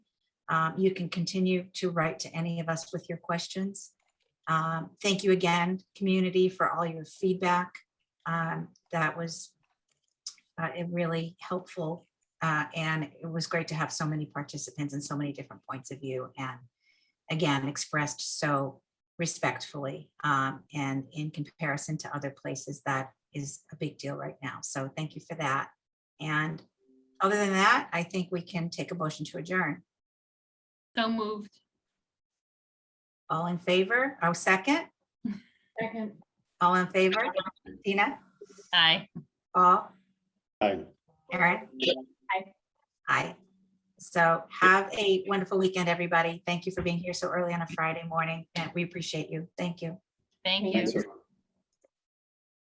Um, You can continue to write to any of us with your questions. Um, Thank you again, community, for all your feedback. Um, That was uh, it really helpful. uh, And it was great to have so many participants and so many different points of view and again, expressed so respectfully um, and in comparison to other places, that is a big deal right now. So thank you for that. And other than that, I think we can take a motion to adjourn. So moved. All in favor? Oh, second? Second. All in favor? Tina? Aye. All? Aye. Erin? Aye. Aye. So have a wonderful weekend, everybody. Thank you for being here so early on a Friday morning, and we appreciate you. Thank you. Thank you. Thanks, everyone.